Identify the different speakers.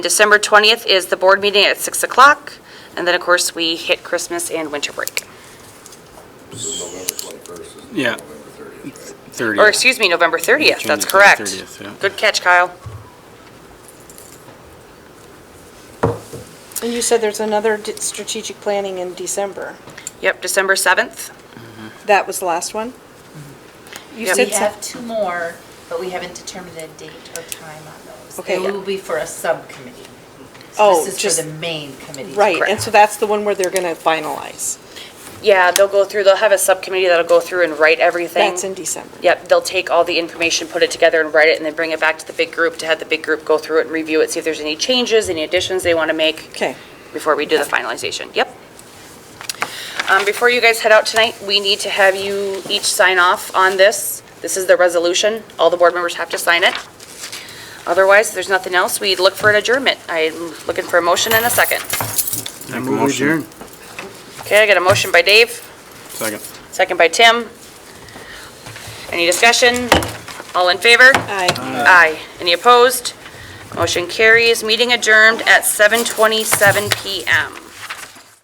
Speaker 1: December 20th is the board meeting at 6 o'clock, and then, of course, we hit Christmas and winter break.
Speaker 2: Yeah. 30th.
Speaker 1: Or, excuse me, November 30th,
Speaker 2: Change
Speaker 1: that's
Speaker 2: it to the
Speaker 1: correct.
Speaker 2: 30th, yeah.
Speaker 1: Good catch, Kyle.
Speaker 3: And you said there's another d- strategic planning in December.
Speaker 1: Yep, December 7th.
Speaker 3: That was the last one? You
Speaker 1: Yep.
Speaker 3: said
Speaker 4: We
Speaker 3: so-
Speaker 4: have two more, but we haven't determined a date or time on those.
Speaker 3: Okay, yeah.
Speaker 4: They will be for a subcommittee.
Speaker 3: Oh,
Speaker 4: So This is
Speaker 3: just-
Speaker 4: for the main committee.
Speaker 3: Right, and
Speaker 1: Correct.
Speaker 3: so that's the one where they're going to finalize.
Speaker 1: Yeah, they'll go through, they'll have a subcommittee that'll go through and write everything.
Speaker 3: That's in December.
Speaker 1: Yep, they'll take all the information, put it together and write it, and then bring it back to the big group to have the big group go through it and review it, see if there's any changes, any additions they want to make.
Speaker 3: Okay.
Speaker 1: before we do the finalization. Yep. Um, Before you guys head out tonight, we need to have you each sign off on this. This is the resolution. All the board members have to sign it. Otherwise, if there's nothing else, we'd look for an adjournment. I'm looking for a motion and a second.
Speaker 2: Make a motion.
Speaker 1: Okay, I got a motion by Dave,
Speaker 2: Second.
Speaker 1: second by Tim. Any discussion? All in favor?
Speaker 3: Aye.
Speaker 1: Aye. Any opposed? Motion carries. Meeting adjourned at 7:27 PM.